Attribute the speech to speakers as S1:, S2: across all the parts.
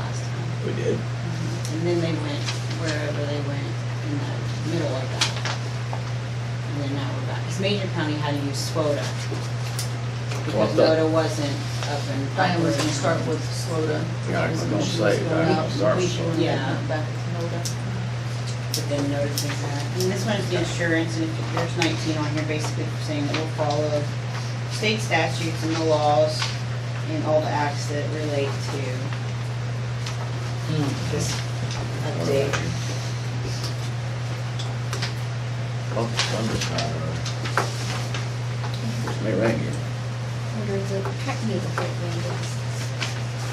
S1: We did.
S2: And then they went wherever they went in the middle of that. And then now we're back, because Major County had to use SWOTA. Because
S1: What's that?
S2: SWOTA wasn't up and.
S3: Diane was gonna start with Sloda.
S1: Yeah, I was gonna say, Diane, start with Sloda.
S3: Yeah. Back with Sloda.
S2: But then noticing that, and this one is the insurance, and if there's nineteen on here, basically saying that we'll follow state statutes and the laws and all the acts that relate to this update.
S1: Oh, thunder's not, uh, It's may rain here.
S4: There's a pack needle that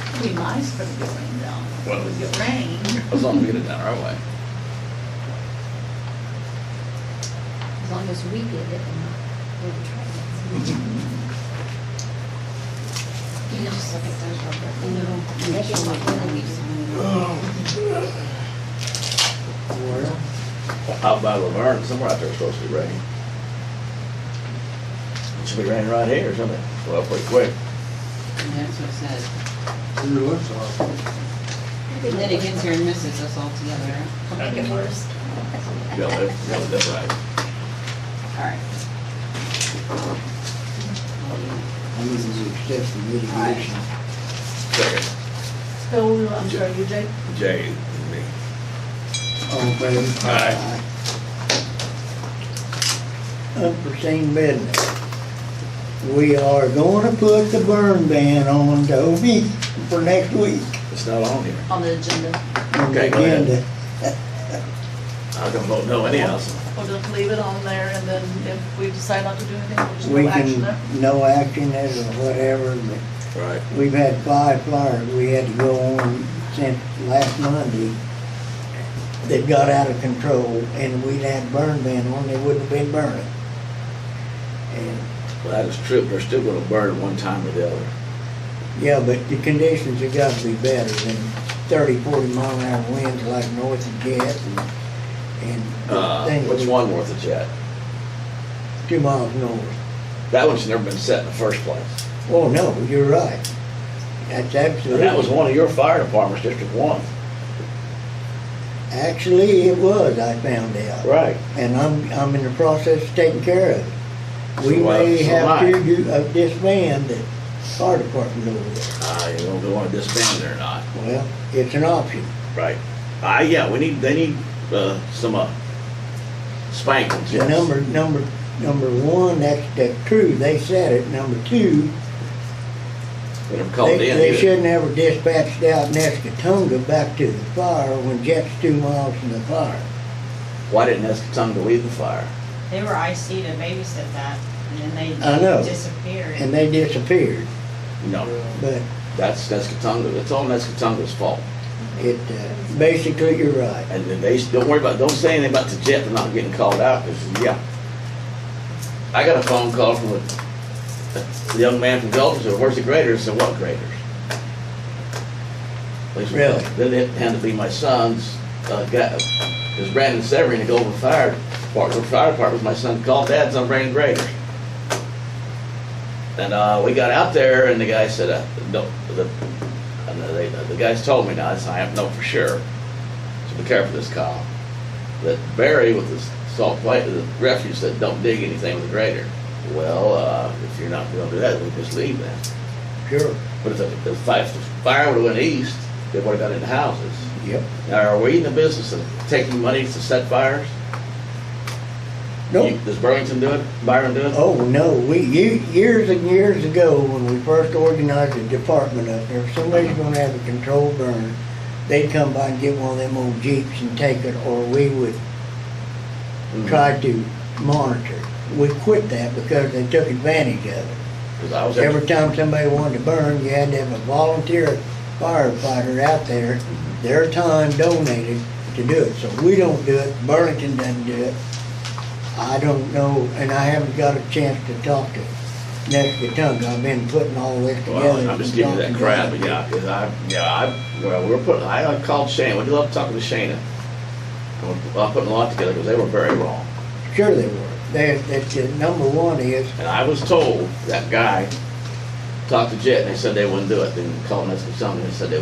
S3: It'd be nice for it to rain down.
S1: Well-
S3: It would get rain.
S1: As long as we get it down our way.
S4: as long as we did it and not the trailers.
S3: You can just look at those real quick.
S4: You know, that's
S2: That's
S4: what
S2: what
S4: we're gonna
S2: we
S4: be doing.
S1: Out by Laverne, somewhere out there it's supposed to be raining. It should be raining right here or something. Well, pretty quick.
S2: And that's what it says.
S5: Sure looks awful.
S2: And then it gets here and misses us all together.
S4: I'll make it worse.
S1: You gotta live, you gotta live right.
S2: Alright.
S5: I mean, it's excessive mitigation.
S1: Second,
S3: So, I'm sorry, you Jake?
S1: Jay, and me.
S5: All in favor?
S1: Aye.
S5: Unforeseen business. We are gonna put the burn ban on Toby for next week.
S1: it's not on here.
S3: On the agenda.
S5: on the
S1: Okay, go ahead.
S5: agenda.
S1: I was gonna vote no anyhow, so
S3: We'll just leave it on there and then if we decide not to do anything, we'll just
S5: We
S3: do action there.
S5: can, no action is or whatever, but
S1: Right.
S5: We've had five fires, we had to go on since last Monday. They've got out of control, and we'd had burn ban on, they wouldn't have been burning. And,
S1: Well, that is true, but they're still gonna burn one time or the other.
S5: yeah, but the conditions have got to be better than thirty, forty mile an hour winds like north of Jet and, and
S1: Uh,
S5: things.
S1: which one worth a jet?
S5: Two miles north.
S1: That one's never been set in the first place.
S5: Oh, no, you're right.
S1: And
S5: That's absolutely.
S1: that was one of your fire departments, District One.
S5: Actually, it was, I found out.
S1: Right.
S5: and I'm, I'm in the process of taking care of it. We
S1: So, uh,
S5: may
S1: so
S5: have
S1: am I.
S5: to do- uh, disband the fire department over there.
S1: Uh, you don't want to disband it or not.
S5: Well, it's an option.
S1: Right. Uh, yeah, we need, they need, uh, some, uh, spankings, yes.
S5: Number, number, number one, that's, that's true, they said it. Number two,
S1: That are called in.
S5: they, they
S1: here.
S5: shouldn't ever dispatched out Nescatonga back to the fire when Jet's two miles from the fire.
S1: Why didn't Escatungoo leave the fire?
S2: They were IC to babysit that, and then
S5: I know.
S2: they disappeared.
S5: And they disappeared,
S1: No,
S5: but
S1: that's Escatungoo, it's all Escatungoo's fault.
S5: it, uh, basically, you're right.
S1: And then they, don't worry about, don't say anything about the jet, they're not getting called out, because, yeah. I got a phone call from a, a young man from Dalton, said, where's the graders? I said, what graders? They said,
S5: Really?
S1: Then it had to be my son's, uh, guy, is Brandon Severin, the Golden Fire Department, Fire Department, my son called, Dad's on Brandon Graders. And, uh, we got out there, and the guy said, uh, no, the, and they, the guys told me now, I said, I have no for sure. So be careful this call. That Barry with his salt plate, the refuge said, don't dig anything with a grader. Well, uh, if you're not gonna do that, we'll just leave that.
S5: Sure.
S1: But if the, the fi- if the fire would've went east, they would've got into houses.
S5: Yep.
S1: Now, are we in the business of taking money to set fires?
S5: Nope.
S1: You- Does Burlington do it? Byron do it?
S5: Oh, no, we, ye- years and years ago, when we first organized a department up there, if somebody's gonna have a controlled burn, they'd come by and get one of them old Jeeps and take it, or we would
S1: Mhm.
S5: try to monitor. We quit that because they took advantage of it.
S1: 'Cause I was.
S5: Every time somebody wanted to burn, you had to have a volunteer firefighter out there, their time donated to do it. So we don't do it, Burlington doesn't do it. I don't know, and I haven't got a chance to talk to Nescatunga. I've been putting all this together.
S1: Well, I'm just giving you that crap, but
S5: and
S1: yeah, 'cause I, yeah, I, well, we're putting, I uh, called Shane, we love talking to Shana. I'm- I'm putting a lot together, because they were very wrong.
S5: talking. Sure they were. They, that's, uh, number one is,
S1: And I was told, that guy talked to Jet, and they said they wouldn't do it, then called us for something, and said they